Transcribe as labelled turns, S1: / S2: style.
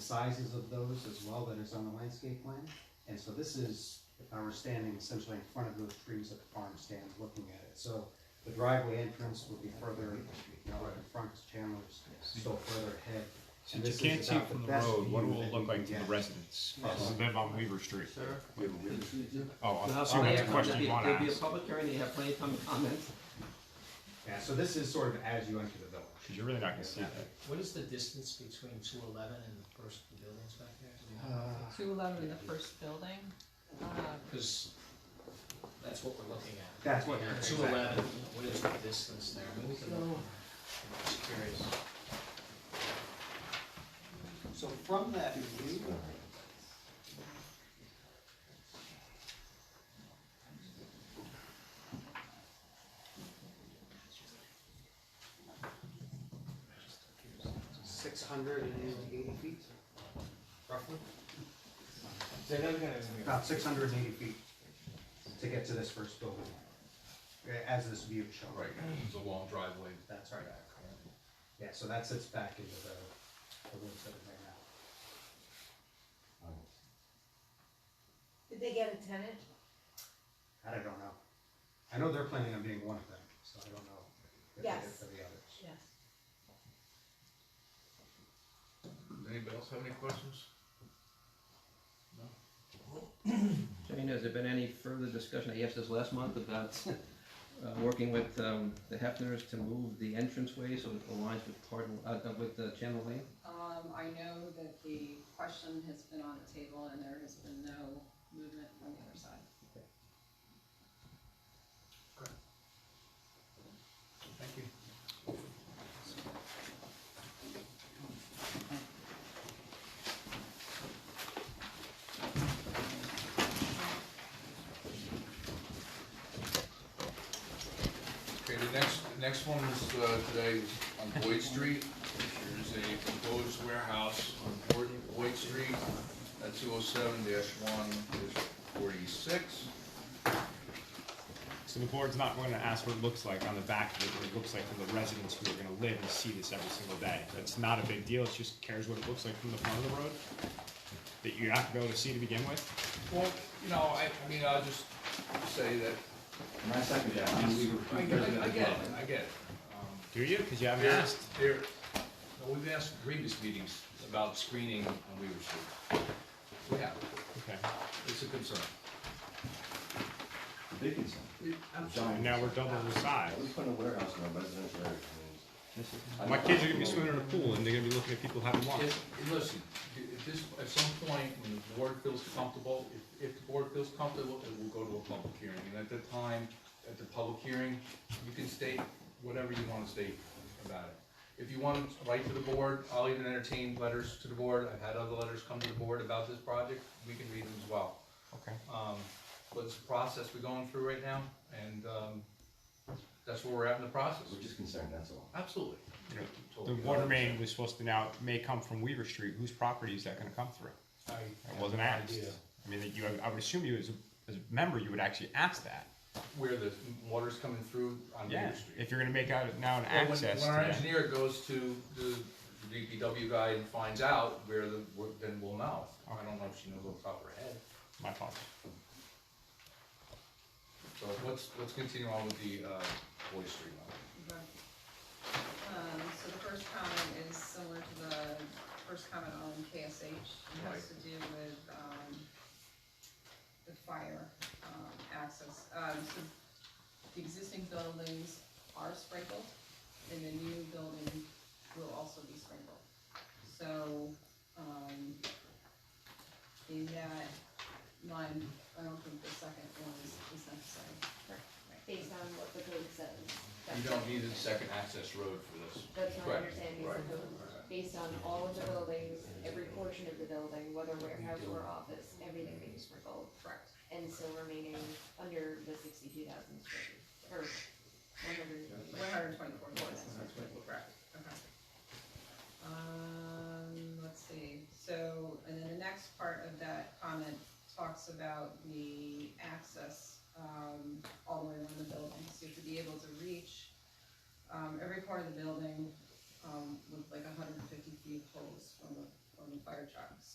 S1: sizes of those as well that is on the landscape plan. And so this is, uh, we're standing essentially in front of those trees at the farm stand looking at it. So the driveway entrance would be further, you know, like in front of Chandler's, so further ahead. And
S2: Since
S1: this
S2: you
S1: is
S2: can't see
S1: about
S2: from the
S1: best
S2: road, what it
S1: view
S2: will
S1: that
S2: it
S1: we can
S2: look like to the
S1: get.
S2: residents? This is them on Weaver Street.
S3: Sir?
S2: We have a Weaver- Oh, I
S3: There'll
S2: see
S3: be
S2: that's
S3: a
S2: a question you want to ask.
S3: public hearing, you have plenty of time to comment.
S1: Yeah, so this is sort of as you enter the village.
S2: Because you're really not going to see that.
S4: What is the distance between two eleven and the first of the buildings back there? Do we know?
S1: Uh,
S5: Two eleven, the first building, uh,
S4: Cause that's what we're looking at.
S1: That's what you're-
S4: Two eleven, what is the distance there? Maybe we can look. I'm Just curious.
S1: So from that view. Six hundred and eighty feet, roughly? About six hundred and eighty feet to get to this first building, uh, as this view shows.
S6: Right, it's a long driveway.
S1: That's right. Yeah, so that sits back into the, the woods that are there now.
S7: Did they get a tenant?
S1: That I don't know. I know they're planning on being one of them, so I don't know if they did
S7: Yes.
S1: for the others.
S7: Yes.
S6: Anybody else have any questions?
S3: Jane, has there been any further discussion, I asked this last month, about uh, working with um, the Hefners to move the entranceway so it aligns with Cardinal, uh, uh, with uh, Channel Lane?
S5: um, I know that the question has been on the table and there has been no movement from the other side.
S6: Okay, the next, the next one is, uh, today is on Boyd Street. There's a proposed warehouse on Boyd, Boyd Street at two oh seven one forty-six.
S2: So the board's not going to ask what it looks like on the back of it, what it looks like for the residents who are going to live and see this every single day. That's not a big deal, it just cares what it looks like from the front of the road that you're not going to see to begin with.
S6: Well, you know, I, I mean, I'll just say that,
S8: And I second that.
S6: I
S8: and we were
S6: I
S8: prepared to
S6: I
S8: that
S6: get
S8: as
S6: it,
S8: well.
S6: I get it. Um,
S2: Do you? Because you haven't
S6: There-
S2: asked.
S6: There, no, we've asked previous meetings about screening on Weaver Street. We have,
S2: Okay.
S6: it's a concern.
S8: Big concern.
S2: And now we're double the size.
S9: We put a warehouse in a residential area. I mean,
S2: My kids are going to be swimming in a pool and they're going to be looking at people having lunch.
S6: If- Listen, at this, at some point, when the board feels comfortable, if, if the board feels comfortable, it will go to a public hearing. And at the time, at the public hearing, you can state whatever you wanna state about it. If you want to write to the board, I'll even entertain letters to the board. I've had other letters come to the board about this project. We can read them as well.
S2: Okay.
S6: Um, but it's a process we're going through right now, and, um, that's where we're at in the process.
S9: We're just concerned, that's all.
S6: Absolutely.
S2: Yeah.
S6: Oh,
S2: The water main was supposed to now, may come from Weaver Street, whose property is that gonna come through? That wasn't asked. I mean, that you, I would assume you as a, as a member, you would actually ask that.
S6: where the water's coming through on
S2: Yeah,
S6: Main Street.
S2: if you're gonna make out now an
S6: Well, when-
S2: access to
S6: When our
S2: that.
S6: engineer goes to the DPW guy and finds out where the, where- then we'll know. I don't know if she knows off the top of her head.
S2: My fault.
S6: So let's, let's continue on with the, uh, Boyd Street one.
S5: Um, so the first comment is similar to the first comment on KSH, it has
S6: Right.
S5: to do with, um, the fire, um, access, um, so the existing buildings are sprinkled, and the new building will also be sprinkled. So, um, in that line, I don't think the second one is, is necessary. Right.
S7: Based on what the code says.
S6: You don't need a second access road for this.
S7: That's my
S6: Correct.
S7: understanding
S6: Right.
S7: of the code. Based on all of the buildings, every portion of the building, whether warehouse or office, everything being sprinkled.
S5: Correct.
S7: And still remaining under the sixty-two thousand square feet, or one hundred.
S5: One hundred and twenty-four dollars. Correct, okay. Um, let's see, so, and then the next part of that comment talks about the access, um, all the way around the building, so to be able to reach, um, every part of the building, um, with like hundred and fifty feet poles from the, from and fire trucks.